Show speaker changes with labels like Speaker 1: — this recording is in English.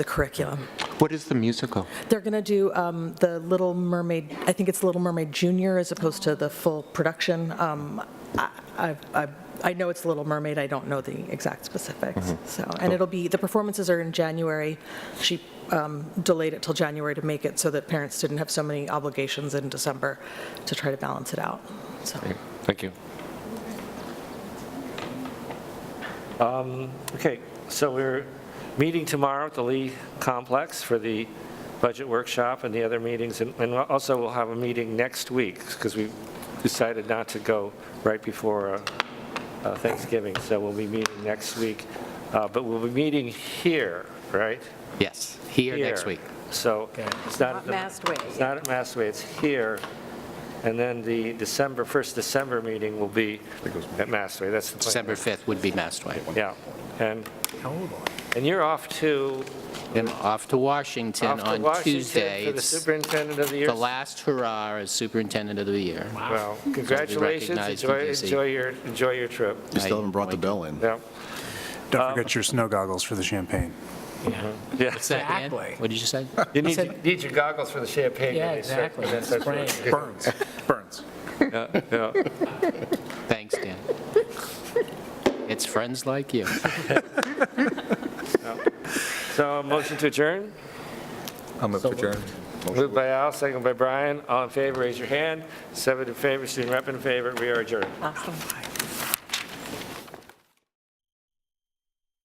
Speaker 1: the curriculum.
Speaker 2: What is the musical?
Speaker 1: They're going to do um, the Little Mermaid, I think it's Little Mermaid Junior as opposed to the full production. Um, I I- I- I know it's Little Mermaid, I don't know the exact specifics, so. And it'll be, the performances are in January. She um, delayed it till January to make it so that parents didn't have so many obligations in December to try to balance it out, so.
Speaker 2: Thank you.
Speaker 3: Okay, so we're meeting tomorrow at the Lee Complex for the budget workshop and the other meetings, and and also we'll have a meeting next week, because we decided not to go right before uh, uh, Thanksgiving, so we'll be meeting next week. Uh, But we'll be meeting here, right?
Speaker 4: Yes, here next week.
Speaker 3: So it's not. at the-
Speaker 5: Not Mastway.
Speaker 3: It's not at Mastway, it's here. And then the December, first December meeting will be at Mastway, that's the plan.
Speaker 4: December 5th would be Mastway.
Speaker 3: Yeah, and, and you're off to,
Speaker 4: I'm off to Washington
Speaker 3: off to
Speaker 4: on
Speaker 3: Washington
Speaker 4: Tuesday.
Speaker 3: for the
Speaker 4: It's
Speaker 3: superintendent of the year.
Speaker 4: the last hurrah as superintendent of the year.
Speaker 3: Well, congratulations,
Speaker 4: recognized in
Speaker 3: enjoy,
Speaker 4: DC.
Speaker 3: enjoy your, enjoy your trip.
Speaker 6: You still haven't brought the bell in.
Speaker 3: Yeah,
Speaker 7: Don't forget your snow goggles for the champagne.
Speaker 3: yeah.
Speaker 4: What's that, Dan?
Speaker 8: Exactly.
Speaker 4: What did you say?
Speaker 3: You need, need your goggles for the champagne.
Speaker 8: Yeah,
Speaker 3: release, sir.
Speaker 8: exactly.
Speaker 3: That's- that's really
Speaker 8: Spraying.
Speaker 3: good.
Speaker 7: Burns, burns.
Speaker 3: Yeah.
Speaker 4: Thanks, Dan. It's friends like you.
Speaker 3: So a motion to adjourn,
Speaker 6: I'm up for adjourn.
Speaker 3: moved by Al, second by Brian, all in favor, raise your hand, seven in favor, student rep in favor, we are adjourned.
Speaker 5: Awesome.